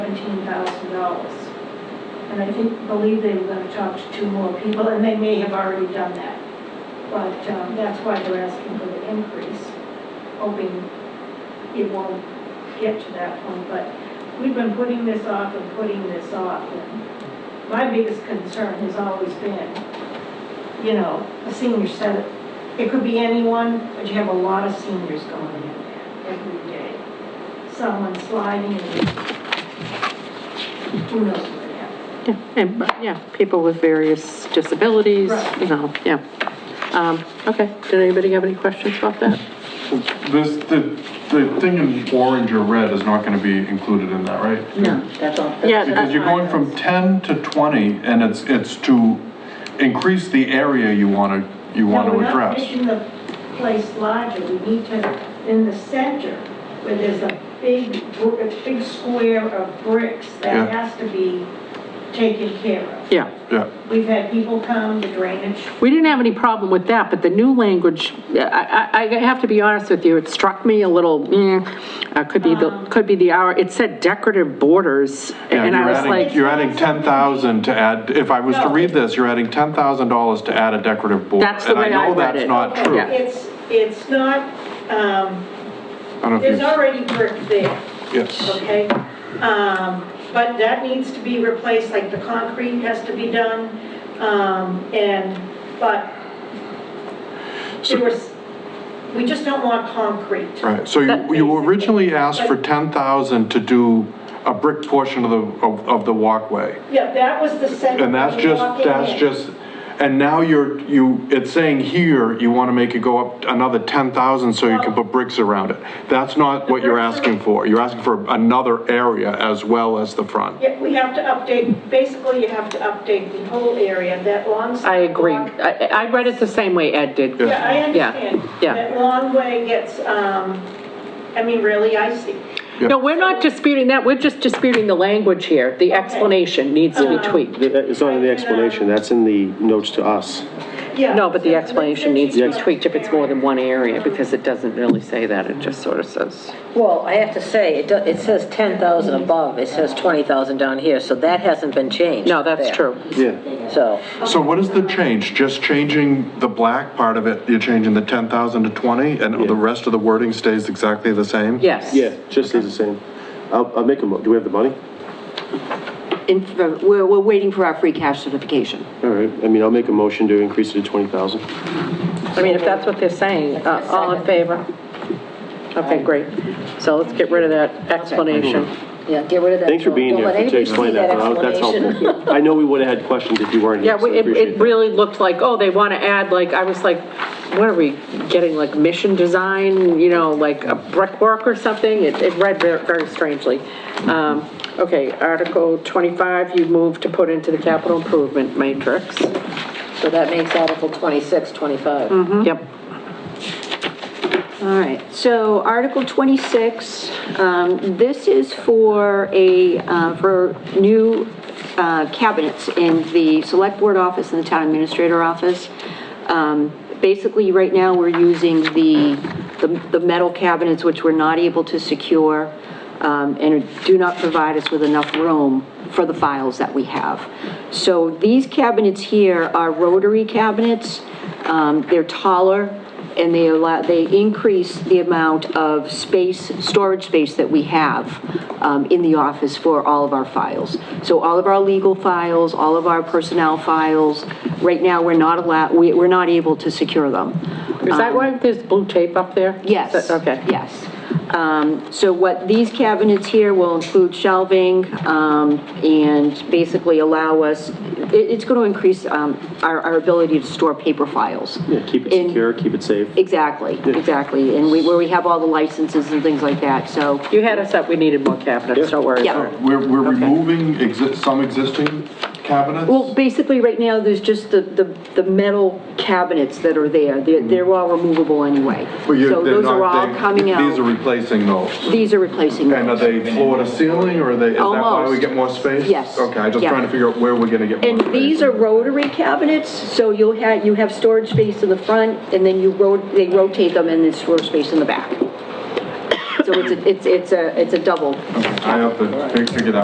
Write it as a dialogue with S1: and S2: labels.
S1: thousand dollars. And I think, believe they were gonna talk to two more people, and they may have already done that. But, um, that's why they're asking for the increase, hoping it won't get to that point, but we've been putting this off and putting this off. and My biggest concern has always been, you know, a senior center. It could be anyone, but you have a lot of seniors going in there every day. Someone sliding and who knows what happened.
S2: Yeah, and, but, yeah, people with various disabilities,
S1: Right.
S2: you know, yeah. Um, okay, did anybody have any questions about that?
S3: This, the, the thing in orange or red is not gonna be included in that, right?
S4: No, that's all. that's
S2: Yeah, uh,
S3: Because you're going from ten to twenty, and it's, it's to increase the area you wanna, you
S1: No,
S3: wanna
S1: we're not
S3: address.
S1: making the place larger, we need to, in the center, where there's a big, br- a big square of bricks that
S3: Yeah.
S1: has to be taken care of.
S2: Yeah,
S3: Yeah,
S1: We've had people come, the drainage,
S2: we didn't have any problem with that, but the new language, I, I, I have to be honest with you, it struck me a little, eh, uh, could be
S1: Um.
S2: the, could be the hour, it said decorative borders,
S3: yeah,
S2: and I
S3: you're
S2: was
S3: adding,
S2: like,
S3: you're adding ten thousand to add, if I was to
S1: No.
S3: read this, you're adding ten thousand dollars to add a decorative board.
S2: That's the way I read it.
S3: And I know that's not true.
S2: Yeah.
S3: I
S1: it's, it's not, um,
S3: don't know
S1: there's
S3: if
S1: already brick there,
S3: you, yes,
S1: okay? Um, but that needs to be replaced, like the concrete has to be done, um, and, but
S3: So-
S1: there was, we just don't want concrete.
S3: right, so you,
S2: That-
S3: you originally asked for ten thousand to do a brick portion of the, of, of the walkway.
S1: Yeah, that was the center.
S3: And that's
S1: when you walk in
S3: just, that's
S1: there.
S3: just, and now you're, you, it's saying here, you want to make it go up another 10,000 so you can put bricks around it. That's not what you're asking for. You're asking for another area as well as the front.
S1: Yeah, we have to update, basically you have to update the whole area, that long.
S2: I agree.
S1: sidewalk.
S2: I, I read it the same way Ed did.
S1: Yeah, I understand.
S2: yeah.
S1: That long way gets, um, I mean, really icy.
S2: No, we're not disputing that, we're just disputing the language here, the explanation needs to be
S1: Uh-huh.
S2: tweaked.
S5: That- It's not in the explanation, that's in the notes to us.
S1: Yeah.
S2: No, but the explanation needs to be
S1: Yeah.
S2: tweaked if it's more than one area, because it doesn't really say that, it just sort of says.
S4: Well, I have to say, it, do- it says 10,000 above, it says 20,000 down here, so that hasn't been changed.
S2: No, that's
S4: there.
S2: true.
S5: Yeah.
S4: So,
S3: So what is the change? Just changing the black part of it, you're changing the 10,000 to 20, and the rest of the wording stays exactly the same?
S2: Yes.
S5: Yeah, just as the same. I'll, I'll make a, mo- do we have the money?
S6: in, we're, we're waiting for our free cash certification.
S5: All right, I mean, I'll make a motion to increase it to 20,000.
S2: I mean, if that's what they're saying, uh, all in favor? Okay, great. So let's get rid of that explanation.
S5: Mm-hmm.
S6: Yeah, get rid of that.
S5: Thanks for being
S6: Don't
S5: here,
S6: let
S5: to
S6: anybody see
S5: explain that,
S6: that
S5: that's
S6: explanation.
S5: helpful. I know we would have had questions if you weren't
S2: Yeah,
S5: here, so I
S2: we- it,
S5: appreciate
S2: it
S5: that.
S2: really looked like, oh, they want to add, like, I was like, what are we, getting like mission design, you know, like a brickwork or something? It, it read ver- very strangely. Um, okay, Article 25, you move to put into the capital improvement matrix.
S4: So that makes Article 26,
S7: Mm.
S4: 25.
S7: Mm-hmm.
S2: Yep.
S7: All right, so Article 26, um, this is for a, uh, for new uh, cabinets in the Select Board office and the Town Administrator office. Um, Basically, right now, we're using the, the- the metal cabinets, which we're not able to secure um, and do not provide us with enough room for the files that we have. So these cabinets here are rotary cabinets. Um, They're taller and they allow, they increase the amount of space, storage space that we have um, in the office for all of our files. So all of our legal files, all of our personnel files, right now, we're not allowed, we, we're not able to secure them.
S2: Is that why there's blue tape up there? Is
S7: Um, Yes.
S2: that- Uh, Okay.
S7: Yes. Um, So what these cabinets here will include shelving um, and basically allow us, it- it's going to increase um, our our ability to store paper files.
S5: Yeah, keep it
S7: In-
S5: secure, keep it safe.
S7: Exactly, exactly. And we- where we have all the licenses and things like that, so,
S2: You had us up, we needed more cabinets, don't worry.
S7: yeah.
S3: We're, we're removing exi- some existing cabinets?
S7: Well, basically, right now, there's just the, the, the metal cabinets that are there. They're, they're all removable anyway.
S3: But you're-
S7: So
S3: they're
S7: those are
S3: not-
S7: all
S3: they-
S7: coming
S3: These are
S7: out.
S3: replacing those.
S7: These are replacing
S3: And are
S7: those.
S3: they floor to ceiling, or are they, is that why we
S7: Almost.
S3: get more space?
S7: Yes.
S3: Okay, I'm just
S7: Yeah.
S3: trying to figure out where we're gonna get more space.
S7: And these are rotary cabinets, so you'll have, you have storage space in the front, and then you rot, they rotate them, and there's storage space in the back. So it's, a- it's, it's a, it's a double
S3: I have to fig- figure that